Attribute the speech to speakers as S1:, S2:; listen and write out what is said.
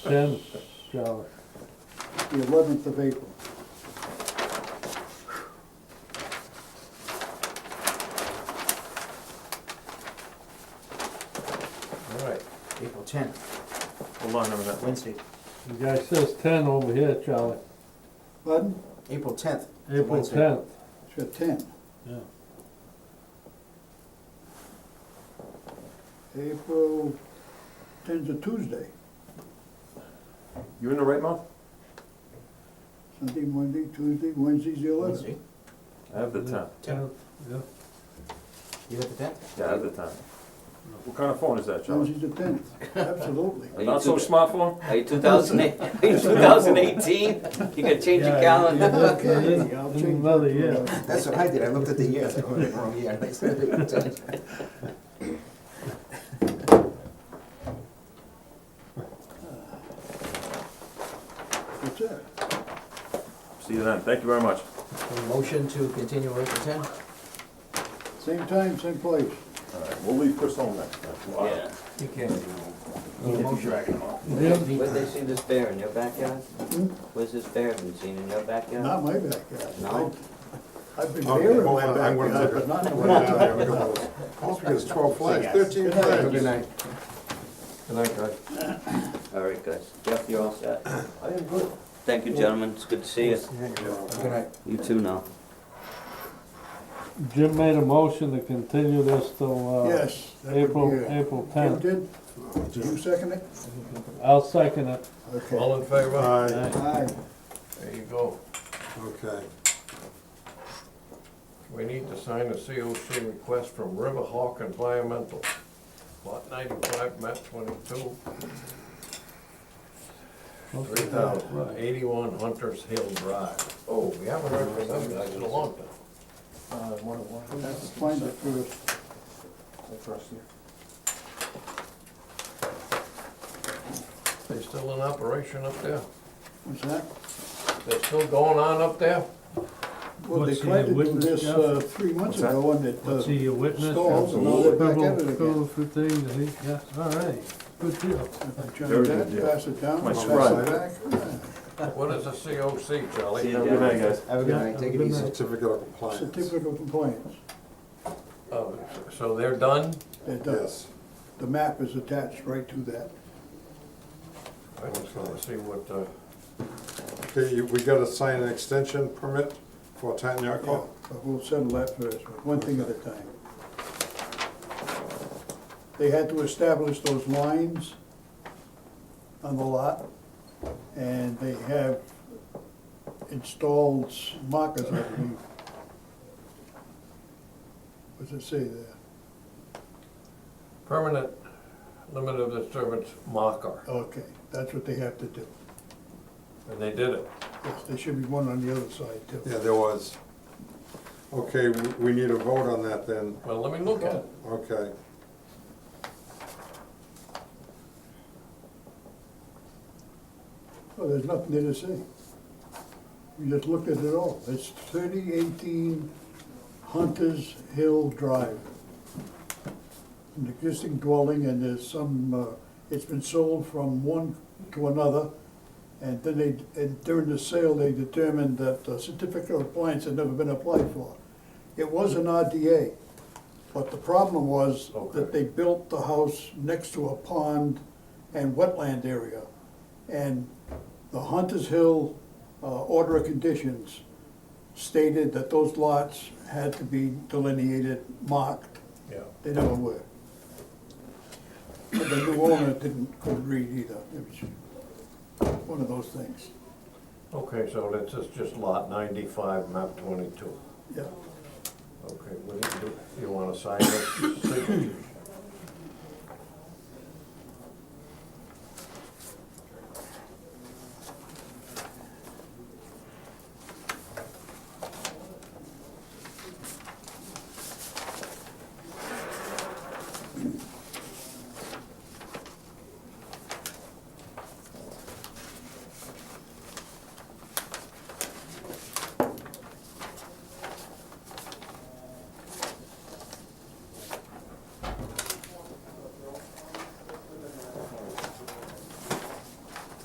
S1: cents, Charlie.
S2: the eleventh of April.
S3: All right, April tenth. Hold on, no, that Wednesday,
S1: The guy says ten over here, Charlie,
S2: Pardon?
S3: April tenth.
S1: April tenth.
S2: It's got ten.
S1: Yeah.
S2: April ten's a Tuesday,
S4: You in the right month?
S2: Sunday, Monday, Tuesday, Wednesday's the eleventh.
S3: Wednesday,
S4: I have the time.
S1: Tenth, yeah.
S3: you have the tenth?
S4: Yeah, I have the time. What kind of phone is that, Charlie?
S2: Wednesday's the tenth, absolutely.
S4: A Not so smartphone?
S5: Are you 2008, are you 2018? You gotta change your
S1: Yeah,
S5: calendar.
S1: yeah, yeah, yeah.
S2: Okay, I'll
S1: In
S2: change
S1: another
S2: that to
S1: year.
S2: eleven.
S3: That's what I did, I looked at the year, I thought, oh, wrong year, I said April tenth.
S2: That's it.
S4: See you then. Thank you very much.
S3: Motion to continue April tenth?
S2: Same time, same place.
S4: All right, we'll leave Chris home next time. Wow.
S5: Yeah.
S3: You can. Motion.
S1: Jim,
S5: Where'd they see this bear in your backyard? Where's this bear been seen in your backyard?
S2: Not my backyard.
S5: No?
S2: I've been
S6: Okay,
S2: there in
S6: well,
S2: my
S6: I'm- I'm gonna
S2: backyard, but
S6: look
S2: not in my
S6: Also because twelve flags, thirteen flags.
S3: Good night. Good night, guys.
S5: All right, guys. Jeff, you're all set.
S3: I am good.
S5: Thank you, gentlemen. It's good to see you.
S3: Good night.
S5: You too now.
S1: Jim made a motion to continue this till, uh,
S2: Yes. that would
S1: April,
S2: be it.
S1: April
S2: You
S1: tenth.
S2: did? Did you second it?
S1: I'll second it.
S2: Okay.
S6: in favor? Aye,
S2: Aye.
S7: There you go.
S6: okay.
S7: We need to sign a COC request from Riverhawk Environmental, lot ninety-five, map twenty-two, three thousand eighty-one Hunter's Hill Drive. Oh, we haven't heard from them guys in a long time.
S2: Let's Find it first.
S7: They still in operation up there?
S2: What's that?
S7: They're still going on up there?
S2: Well, they
S1: What's he,
S2: tried to do
S1: witness,
S2: this
S1: Jeff?
S2: uh, three months
S4: What's that?
S2: ago and it, uh,
S1: See your witness.
S2: Stalls, and now they're back at it again.
S1: Stalls, the thing, that he- yeah, all right, good deal.
S2: if I
S4: Very
S2: turn
S4: good
S2: that,
S4: deal.
S2: pass it down,
S4: My
S2: pass
S4: surprise.
S2: it back.
S7: What is a COC, Charlie?
S5: See you,
S4: Have a good night, guys.
S3: Have a good night, take it
S1: Good
S3: easy.
S1: night.
S6: Certificate of compliance,
S2: Certificate of compliance,
S7: Oh, So they're done?
S2: it does.
S6: yes.
S2: The map is attached right to that.
S7: I just wanna see what, uh,
S6: Okay, you- we gotta sign an extension permit for Tanyako.
S2: But we'll settle that first, one thing at a time. They had to establish those lines on the lot, and they have installed markers, I believe. What's it say there?
S7: permanent limit of disturbance marker,
S2: Okay, that's what they have to do.
S7: and they did it.
S2: Yes, there should be one on the other side too.
S6: Yeah, there was. Okay, we we need a vote on that then,
S7: Well, let me look at it.
S6: okay.
S2: Well, there's nothing there to say. We just looked at it all. It's thirty eighteen Hunter's Hill Drive. An existing dwelling and there's some, uh, it's been sold from one to another. And then they, and during the sale, they determined that a certificate of appliance had never been applied for. It was an RDA, but the problem was
S7: Okay.
S2: that they built the house next to a pond and wetland area. And the Hunter's Hill uh, Order of Conditions stated that those lots had to be delineated, marked.
S7: Yeah.
S2: They never were. But the new owner didn't, couldn't read either. It was one of those things.
S7: Okay, so this is just lot ninety-five, map twenty-two.
S2: Yeah.
S7: Okay, what do you do? You wanna sign this signature?